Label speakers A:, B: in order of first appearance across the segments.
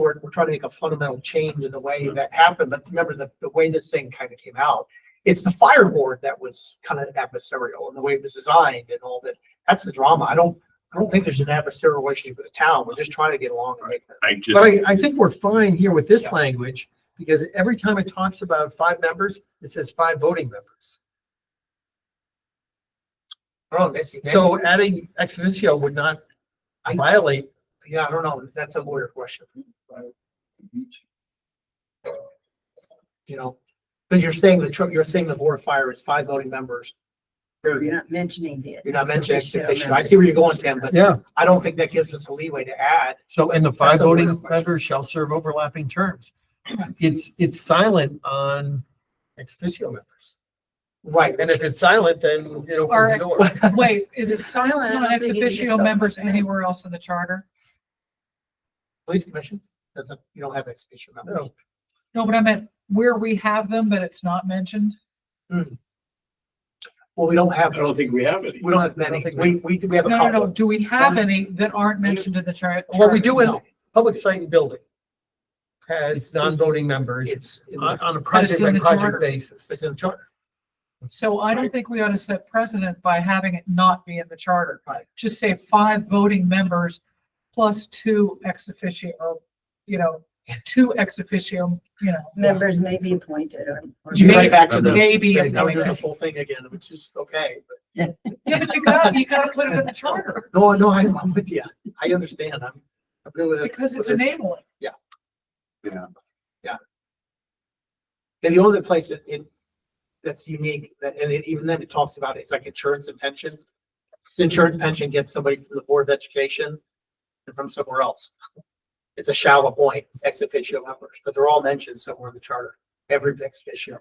A: we're, we're trying to make a fundamental change in the way that happened, but remember the, the way this thing kind of came out. It's the fire board that was kind of adversarial and the way it was designed and all that. That's the drama. I don't, I don't think there's an adversarial relationship with the town. We're just trying to get along and make that.
B: I just,
C: But I, I think we're fine here with this
A: Yeah.
C: language, because every time it talks about five members, it says five voting members.
A: I don't know, Nancy, maybe-
C: So adding ex officio would not
A: I-
C: violate,
A: Yeah, I don't know. That's a lawyer question. You know, because you're saying the, tr- you're saying the board of fire is five voting members.
D: You're
A: Period.
D: not mentioning the.
A: You're not mentioning ex
D: officio
A: officio. I
D: members.
A: see where you're going, Tim, but
C: yeah,
A: I don't think that gives us a leeway to add.
C: so, and the
A: That's
C: five
A: a weird
C: voting
A: question.
C: members shall serve overlapping terms. It's, it's silent on ex officio members.
A: Right.
C: And if it's silent, then it opens the door.
E: Wait, is it
D: I
E: silent
D: don't
E: on ex
D: think you can
E: officio
D: stop.
E: members anywhere else in the charter?
A: Police commission doesn't, you don't have ex officio members.
C: No.
E: No, but I meant where we have them, but it's not mentioned.
A: Well, we don't
B: I
A: have,
B: don't think we have any.
A: we don't have
C: I don't
A: many.
C: think
A: We, we, do- we have
E: No,
A: a
E: no, no.
A: couple.
E: Do we have any that aren't mentioned in the chart?
C: What we do in
A: No.
C: public site and building has non-voting members
A: It's, in
C: on,
A: the-
C: on a project
E: in
C: by
E: the charter.
C: project basis.
A: it's in the charter.
E: So I don't think we ought to set precedent by having it not be in the charter.
A: Right.
E: Just say five voting members plus two ex officio, you know, two ex officio, you know.
D: Members may be appointed or. or-
A: Do you right back to the,
E: Maybe.
A: yeah, now we're doing the
E: appointed.
A: full thing again, which is okay. but-
E: Yeah, but you gotta, you gotta put it in the charter
A: No, no, I'm, I'm with you. I understand. I'm, I'm good with it.
E: because it's enabling.
A: And the only place that it, that's unique, that, and it- even then it talks about it, it's like insurance and pension. It's insurance pension gets somebody from the Board of Education and from somewhere else. It's a shallow point, ex officio members, but they're all mentioned somewhere in the charter, every ex officio.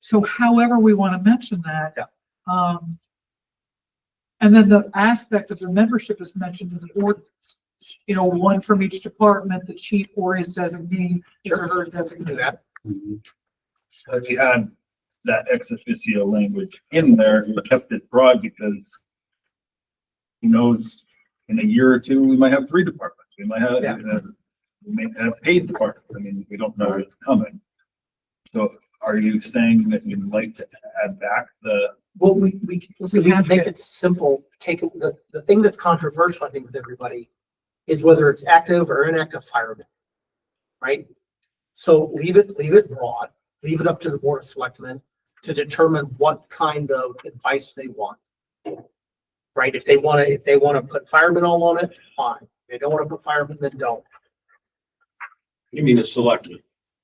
E: So however we want to mention that.
A: Yeah.
E: Um. And then the aspect of the membership is mentioned in the ordinance. You know, one from each department, the chief or his designee, his or her
A: We can Do
E: designee.
A: that.
F: So if you had that ex officio language in there, you kept it broad because who knows, in a year or two, we might have three departments. We might have,
A: Yeah.
F: uh, we may have paid departments. I mean, we don't know what's coming. So are you saying that you'd like to add back the,
A: Well, we, we, can- listen, we can
E: have
A: make
E: to-
A: it simple, take, it- the, the thing that's controversial, I think, with everybody is whether it's active or inactive firemen. Right? So leave it, leave it broad, leave it up to the board of selectmen to determine what kind of advice they want. Right? If they wanna, if they wanna put firemen all on it, fine. If They don't wanna put firemen, then don't.
B: You mean a selectman?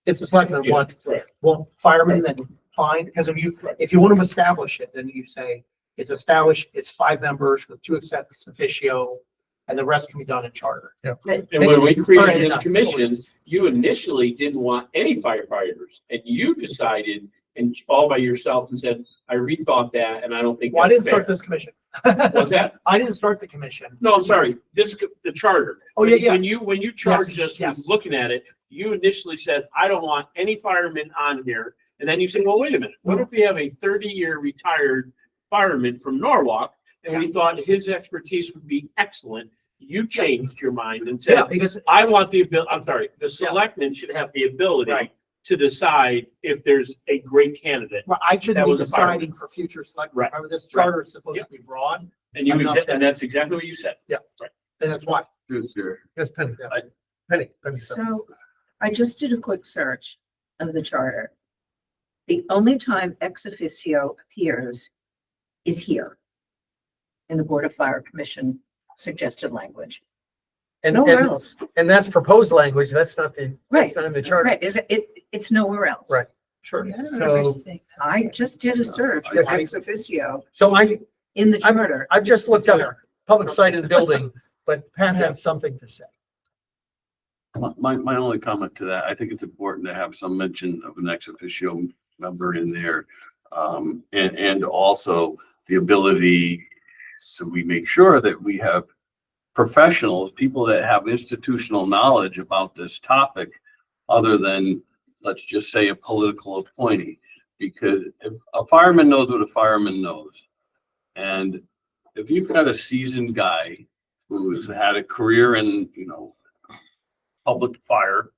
A: If the selectmen
B: Yeah,
A: want
B: correct.
A: well, firemen, then fine, because if you, if you want to establish it, then you say, it's established, it's five members with two ex officio, and the rest can be done in charter.
B: And when we
A: Alright,
B: created this
A: enough.
B: commission, you initially didn't want any firefighters and you decided and all by yourself and said, I rethought that and I don't think
A: Well, I didn't
B: that's fair.
A: start this commission.
B: Was that?
A: I didn't start the commission.
B: No, I'm sorry. This, co- the charter.
A: Oh, yeah, yeah.
B: When you, when you charged us
A: yes.
B: with looking at it, you initially said, I don't want any firemen on here. And then you said, well, wait a minute,
A: Mm-hmm.
B: what if we have a thirty-year retired fireman from Norwalk? And we thought his expertise would be excellent. You changed your mind and said,
A: Yeah, because,
B: I want the abil, I'm sorry, the selectmen should have the ability
A: Right.
B: to decide if there's a great candidate.
A: well, I shouldn't
B: That
A: be
B: was a fireman.
A: deciding for future select,
B: Right.
A: remember, this charter is supposed to be broad,
B: And you,
A: Enough
B: exa-
A: that-
B: and that's exactly what you said.
A: and that's why.
C: Yes, Penny.
B: Yeah.
C: Penny, I'm sorry.
D: So I just did a quick search of the charter. The only time ex officio appears is here in the Board of Fire Commission suggested language.
C: And,
D: Nowhere
C: and,
D: else.
C: and that's proposed language, that's not the, that's not in the charter.
D: Right, is it, it- it's nowhere else.
C: Right.
A: Sure.
C: So,
D: I just did a search for
C: Yes, I-
D: ex officio
C: so I,
D: in the
C: I'm-
D: charter.
C: I've just looked up public site and building, but Pat had something to say.
G: My- My, my only comment to that, I think it's important to have some mention of an ex officio member in there. Um, and, and also the ability, so we make sure that we have professionals, people that have institutional knowledge about this topic, other than, let's just say, a political appointee. Because if a fireman knows what a fireman knows. And if you've got a seasoned guy who's had a career in, you know, public fire